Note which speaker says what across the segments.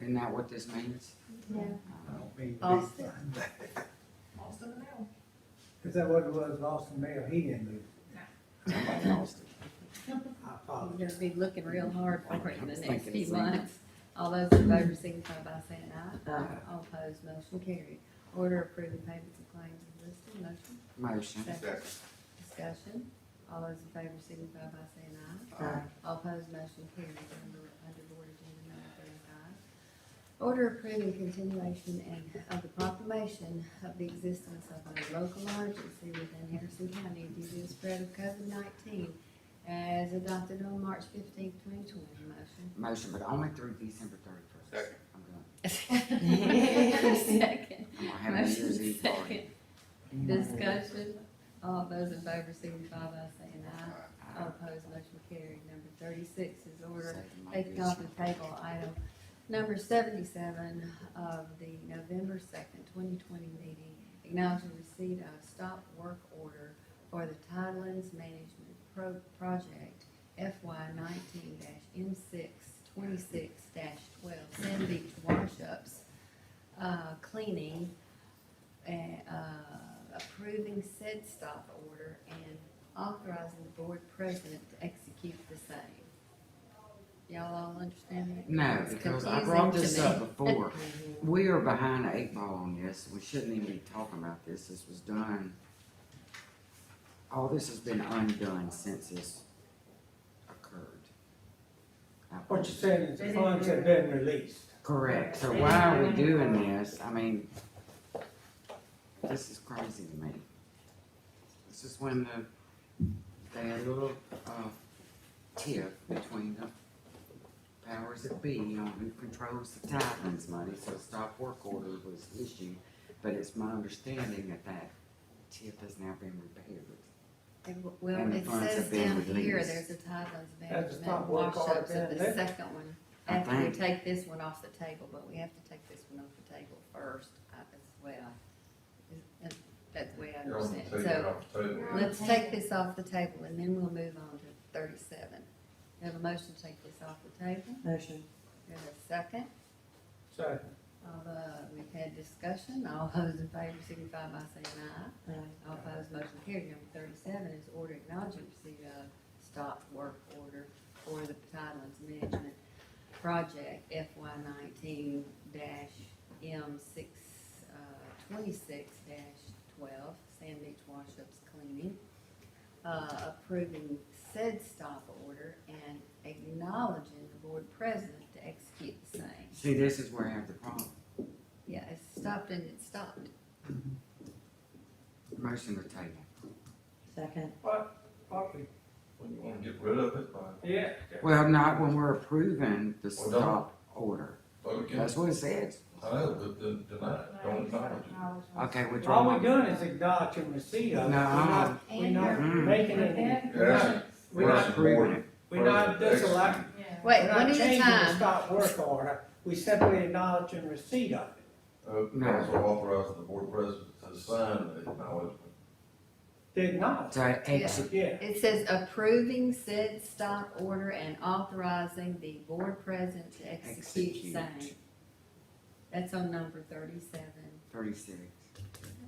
Speaker 1: Isn't that what this means?
Speaker 2: Yeah.
Speaker 3: I don't mean to be
Speaker 4: Austin.
Speaker 3: funny.
Speaker 4: Austin Mill.
Speaker 3: Is that what it was, Austin Mayor, he didn't lose,
Speaker 1: Somebody lost it.
Speaker 3: I
Speaker 4: We're
Speaker 3: apologize.
Speaker 4: gonna be looking real hard for it in the next few
Speaker 1: Thinking so.
Speaker 4: months. All those in favor signify by saying aye.
Speaker 1: Aye.
Speaker 4: All opposed, motion carried. Order approving payments and claims is listed, motion,
Speaker 1: Motion.
Speaker 4: second. Discussion, all those in favor signify by saying aye.
Speaker 1: Aye.
Speaker 4: All opposed, motion carried. Under, under board agenda number thirty-five. Order approving continuation and of the proclamation of the existence of a local emergency within Harrison County due to the spread of COVID nineteen as adopted on March fifteenth, twenty twenty.
Speaker 1: Motion,
Speaker 4: Motion.
Speaker 1: but only through December thirty-first.
Speaker 5: Second.
Speaker 1: I'm gonna,
Speaker 4: Second.
Speaker 1: I'm gonna have a New
Speaker 4: Motion
Speaker 1: Year's Eve
Speaker 4: second.
Speaker 1: party.
Speaker 4: Discussion, all those in favor signify by saying aye.
Speaker 1: Aye.
Speaker 4: All opposed, motion carried. Number thirty-six is order
Speaker 1: Second my
Speaker 4: taking off
Speaker 1: vision.
Speaker 4: the table item number seventy-seven of the November second, twenty twenty meeting. Acknowledging receipt of stop work order for the Tidelands Management Pro- Project FY nineteen M six twenty-six twelve, Sand Beach Washups, uh, cleaning, and, uh, approving said stop order and authorizing the board president to execute the same. Y'all all understand that?
Speaker 1: No,
Speaker 4: It's
Speaker 1: because I
Speaker 4: confusing
Speaker 1: brought
Speaker 4: to
Speaker 1: this
Speaker 4: me.
Speaker 1: up before. We are behind the eight ball on this. We shouldn't even be talking about this. This was done. All this has been undone since this occurred. I
Speaker 3: What
Speaker 1: believe.
Speaker 3: you're saying is the funds have been released.
Speaker 1: Correct, so why are we doing this? I mean, this is crazy to me. This is when the, they had a little, uh, tiff between the powers that be on who controls the Tidelands money, so a stop work order was issued. But it's my understanding that that tiff has now been repaired.
Speaker 4: And w- Well,
Speaker 1: And the
Speaker 4: it
Speaker 1: funds
Speaker 4: says
Speaker 1: have been
Speaker 4: down here,
Speaker 1: released.
Speaker 4: there's a Tidelands
Speaker 3: That's a
Speaker 4: management
Speaker 3: stop work order
Speaker 4: washups of
Speaker 3: been
Speaker 4: the
Speaker 3: lifted.
Speaker 4: second one.
Speaker 1: I
Speaker 4: After we
Speaker 1: think.
Speaker 4: take this one off the table, but we have to take this one off the table first, I, as well. Is- that- That's the way I
Speaker 5: You're on the
Speaker 4: understand,
Speaker 5: table,
Speaker 4: it.
Speaker 5: you're
Speaker 4: so,
Speaker 5: off the table.
Speaker 4: let's take this off the table, and then we'll move on to thirty-seven. We Have a motion to take this off the table,
Speaker 6: Motion.
Speaker 4: we have a second,
Speaker 3: So,
Speaker 4: although we've had discussion, all those in favor signify by saying aye.
Speaker 6: Aye.
Speaker 4: All opposed, motion carried. Number thirty-seven is order acknowledging receipt of stop work order for the Tidelands Management Project FY nineteen M six, uh, twenty-six twelve, Sand Beach Washups Cleaning. Uh, approving said stop order and acknowledging the board president to execute the same.
Speaker 1: See, this is where I have the problem.
Speaker 4: Yeah, it stopped and it stopped.
Speaker 1: Motion to table.
Speaker 6: Second.
Speaker 3: what we,
Speaker 5: Well, you wanna get rid of it by
Speaker 3: yeah,
Speaker 1: Well, not when we're approving the
Speaker 5: Well, don't-
Speaker 1: stop order.
Speaker 5: vote against
Speaker 1: That's what it says.
Speaker 5: it? I know, but then deny it, don't acknowledge it.
Speaker 1: Okay, withdraw
Speaker 3: all
Speaker 1: my.
Speaker 3: we're doing is acknowledging receipt of it. We're
Speaker 1: No,
Speaker 3: not- We're not making it,
Speaker 5: Yes,
Speaker 3: we're
Speaker 1: we're
Speaker 3: not,
Speaker 1: approving it.
Speaker 3: we're not disallowing,
Speaker 4: Wait,
Speaker 3: we're
Speaker 4: one
Speaker 3: not
Speaker 4: at a
Speaker 3: changing the
Speaker 4: time.
Speaker 3: stop work order. We simply acknowledging receipt of it.
Speaker 5: Uh, council authorizes the board president to sign the acknowledgement.
Speaker 3: The acknowledge,
Speaker 1: To execute
Speaker 3: yeah.
Speaker 4: It says approving said stop order and authorizing the board president to execute same.
Speaker 1: Execute.
Speaker 4: That's on number thirty-seven,
Speaker 1: Thirty-six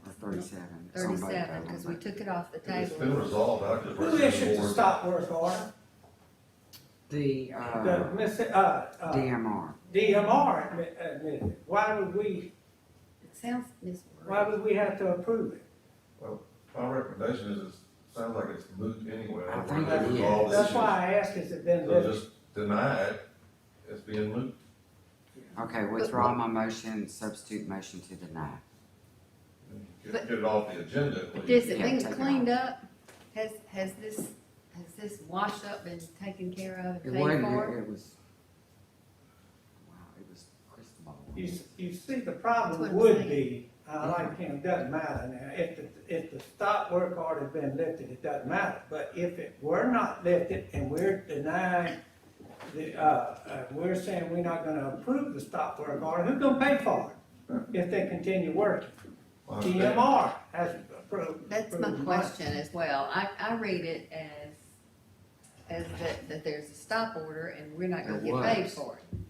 Speaker 1: or thirty-seven. it's on both of
Speaker 4: thirty-seven,
Speaker 1: them,
Speaker 4: because we
Speaker 1: but-
Speaker 4: took it off the
Speaker 5: If it's been
Speaker 4: table.
Speaker 5: resolved, I could.
Speaker 3: Who issued the stop work order?
Speaker 1: The,
Speaker 3: The,
Speaker 1: uh,
Speaker 3: miss- uh, uh,
Speaker 1: DMR,
Speaker 3: DMR admi- admitted it. Why would we,
Speaker 4: It sounds
Speaker 3: why
Speaker 4: misworded.
Speaker 3: would we have to approve it?
Speaker 5: My recommendation is, it sounds like it's moot anyway.
Speaker 1: I think
Speaker 3: it
Speaker 5: Resolve the
Speaker 3: That's
Speaker 5: issue.
Speaker 3: why I asked, has it been
Speaker 5: So
Speaker 3: listed?
Speaker 5: just deny it, it's being moot.
Speaker 1: okay, withdraw my motion, substitute motion to deny.
Speaker 5: Get
Speaker 4: But-
Speaker 5: get it off the agenda, please.
Speaker 4: But this, it
Speaker 1: Yeah,
Speaker 4: been
Speaker 1: take it
Speaker 4: cleaned up, has, has this, has this wash up been taken care of
Speaker 1: It
Speaker 4: and paid
Speaker 1: wasn't,
Speaker 4: for?
Speaker 1: it was, wow, it was crystal ball.
Speaker 3: You, s- you see, the
Speaker 4: That's
Speaker 3: problem
Speaker 4: what I'm
Speaker 3: would be, uh, like him, doesn't matter now, if the, if the stop work order's been lifted, it doesn't matter. But if it were not lifted and we're denying the, uh, uh, we're saying we're not gonna approve the stop work order, who's gonna pay for it? If they continue working,
Speaker 5: I understand.
Speaker 3: DMR has approved.
Speaker 4: That's my
Speaker 3: approved the money.
Speaker 4: question as well. I, I read it as, as that, that there's a stop order and we're not gonna
Speaker 1: It
Speaker 4: get paid
Speaker 1: was.
Speaker 4: for it.